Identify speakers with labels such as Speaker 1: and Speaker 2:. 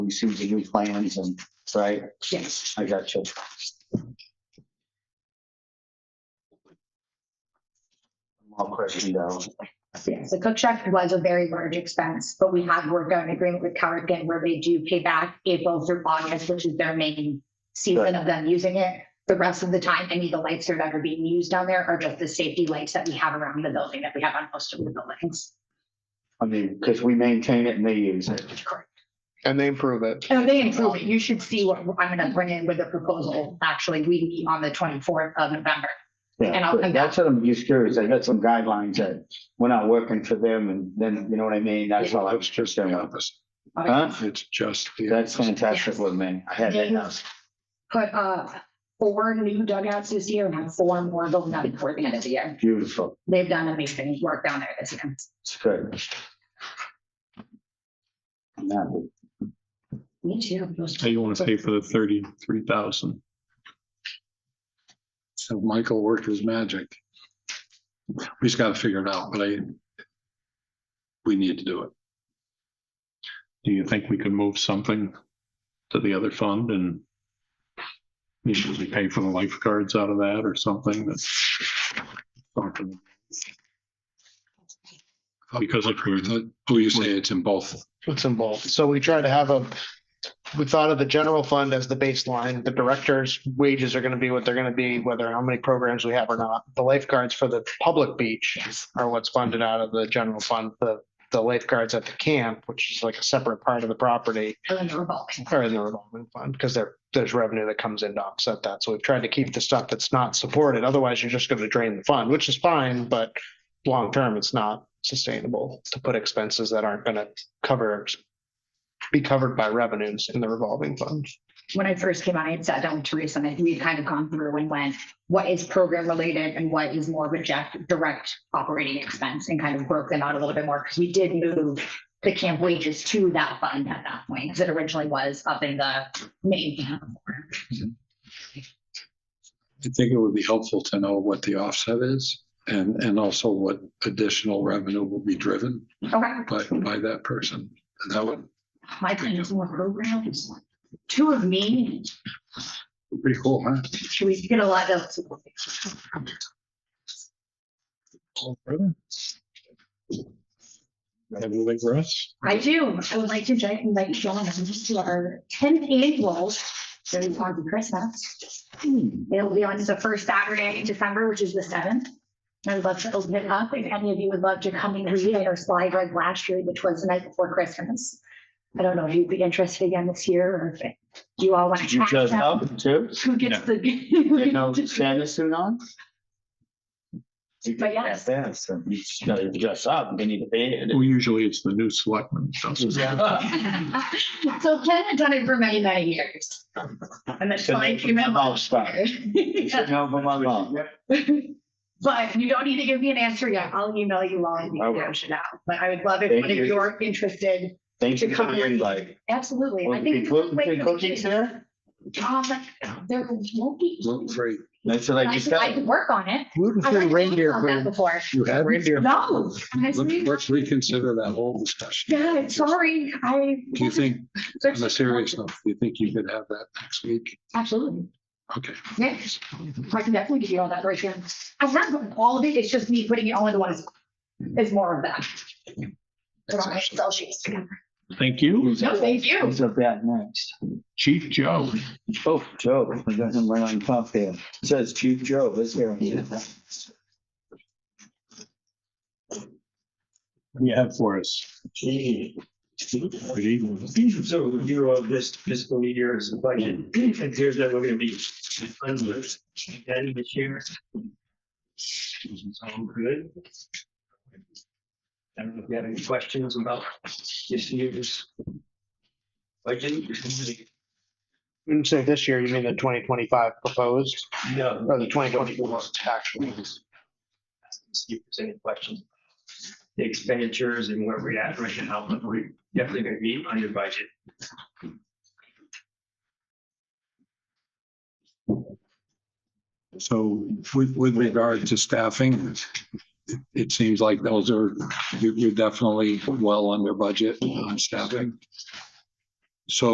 Speaker 1: we see the new plans and, right?
Speaker 2: Yes.
Speaker 1: I got you. All questioned out.
Speaker 2: Yes, the cook shack was a very large expense, but we have worked out an agreement with Carrigan where they do pay back April through August, which is their main season of them using it. The rest of the time, any of the lights that are ever being used down there are just the safety lights that we have around the building that we have on most of the buildings.
Speaker 1: I mean, because we maintain it and they use it.
Speaker 2: Correct.
Speaker 3: And they improve it.
Speaker 2: And they improve it. You should see what I'm gonna bring in with a proposal. Actually, we meet on the twenty-fourth of November. And
Speaker 1: Yeah,
Speaker 2: I'll come
Speaker 1: but that's what I'm just curious. I got some guidelines that we're not working for them and then, you know what I mean? That's all I was just saying. Huh?
Speaker 3: It's just.
Speaker 1: That's fantastic with me. I had that. now.
Speaker 2: Put, uh, four new dugouts this year and have four more going up before the end of the year.
Speaker 1: Beautiful.
Speaker 2: they've done amazing work down there this year.
Speaker 1: It's good. I'm happy.
Speaker 2: Me too.
Speaker 4: How you want to pay for the thirty-three thousand?
Speaker 3: So Michael worked his magic. We just gotta figure it out, but I. We need to do it.
Speaker 4: Do you think we could move something to the other fund and usually pay for the lifeguards out of that or something that's Because if we're-
Speaker 3: Oh, you say it's in both.
Speaker 5: what's involved. So we try to have a, we thought of the general fund as the baseline. The director's wages are gonna be what they're gonna be, whether how many programs we have or not. The lifeguards for the public beach are what's funded out of the general fund. The, the lifeguards at the camp, which is like a separate part of the property, are in the revolving fund because there, there's revenue that comes in to offset that. So we've tried to keep the stuff that's not supported. Otherwise, you're just gonna drain the fund, which is fine, but long-term, it's not sustainable to put expenses that aren't gonna cover, be covered by revenues in the revolving fund.
Speaker 2: When I first came on, I had sat down with Teresa and we had kind of gone through and went, what is program related and what is more reject, direct operating expense and kind of broke them out a little bit more because we did move the camp wages to that fund at that point because it originally was up in the main camp.
Speaker 3: I think it would be helpful to know what the offset is and, and also what additional revenue will be driven
Speaker 2: Okay.
Speaker 3: by, by that person. And that would
Speaker 2: My plan is more programs. Two of me,
Speaker 3: be pretty cool, huh?
Speaker 2: should we get a lot of?
Speaker 4: everything for us?
Speaker 2: I do. I would like to ju- invite John to our tenth annual, very fun for Christmas.
Speaker 1: Hmm.
Speaker 2: It'll be on the first Saturday in December, which is the seventh. I'd love to open it up. If any of you would love to come and read our slide like last year, which was the night before Christmas. I don't know if you'd be interested again this year or if you all want to.
Speaker 1: Did you just help too?
Speaker 2: Who gets the?
Speaker 1: You know, Santa suit on? You
Speaker 2: But
Speaker 1: can
Speaker 2: yes.
Speaker 1: have that, so You just gotta dress up, and then you pay it.
Speaker 4: Well, usually it's the new selectman.
Speaker 2: So Ken had done it for many, many years. And that's
Speaker 1: Should
Speaker 2: fine.
Speaker 1: make
Speaker 2: if you
Speaker 1: my
Speaker 2: remember.
Speaker 1: mouth stop. Should know from my mom.
Speaker 2: But you don't need to give me an answer yet. I'll email you all the
Speaker 1: I will.
Speaker 2: information out. But I would love if
Speaker 1: Thank
Speaker 2: one of
Speaker 1: you.
Speaker 2: you're interested.
Speaker 1: Thank you for
Speaker 2: Come
Speaker 1: the
Speaker 2: on.
Speaker 1: invite.
Speaker 2: Absolutely.
Speaker 1: Will
Speaker 2: I
Speaker 1: there
Speaker 2: think.
Speaker 1: be cook- be cookies there?
Speaker 2: Um, there won't be.
Speaker 3: Gluten free.
Speaker 1: That's what I
Speaker 2: I
Speaker 1: just
Speaker 2: could, I
Speaker 1: said.
Speaker 2: could work on it. I've
Speaker 5: Gluten-free
Speaker 2: already
Speaker 5: reindeer
Speaker 2: done that
Speaker 5: food.
Speaker 2: Before.
Speaker 3: You had.
Speaker 5: Reindeer.
Speaker 2: No. honestly,
Speaker 3: Let's, let's reconsider that whole discussion.
Speaker 2: Yeah, sorry. I.
Speaker 3: Do you think,
Speaker 2: There's-
Speaker 3: on a serious note, do you think you could have that next week?
Speaker 2: Absolutely.
Speaker 3: Okay.
Speaker 2: Yeah, I can definitely give you all that right here. I'm not putting all of it, it's just me putting it all into one. spot. It's more of that. Put all my Excel sheets together.
Speaker 4: Thank you,
Speaker 2: No, thank you.
Speaker 1: Who's up that next?
Speaker 4: Chief Joe.
Speaker 1: Oh, Joe, I got him right on top there. It Says Chief Joe, let's hear him.
Speaker 4: What do you have for us?
Speaker 6: Gee.
Speaker 4: Good evening.
Speaker 6: So review of this fiscal year's budget, it appears that we're gonna be fundless again this year. Sound good? I don't know if you have any questions about this year's budget.
Speaker 5: And so this year, you mean the twenty twenty-five proposed
Speaker 6: No.
Speaker 5: or the twenty twenty-four actually?
Speaker 6: See if there's any questions. The expenditures and where we're at right now, but we're definitely gonna be under budget.
Speaker 3: So with, with regard to staffing, it seems like those are, you- you're definitely well under budget on staffing. So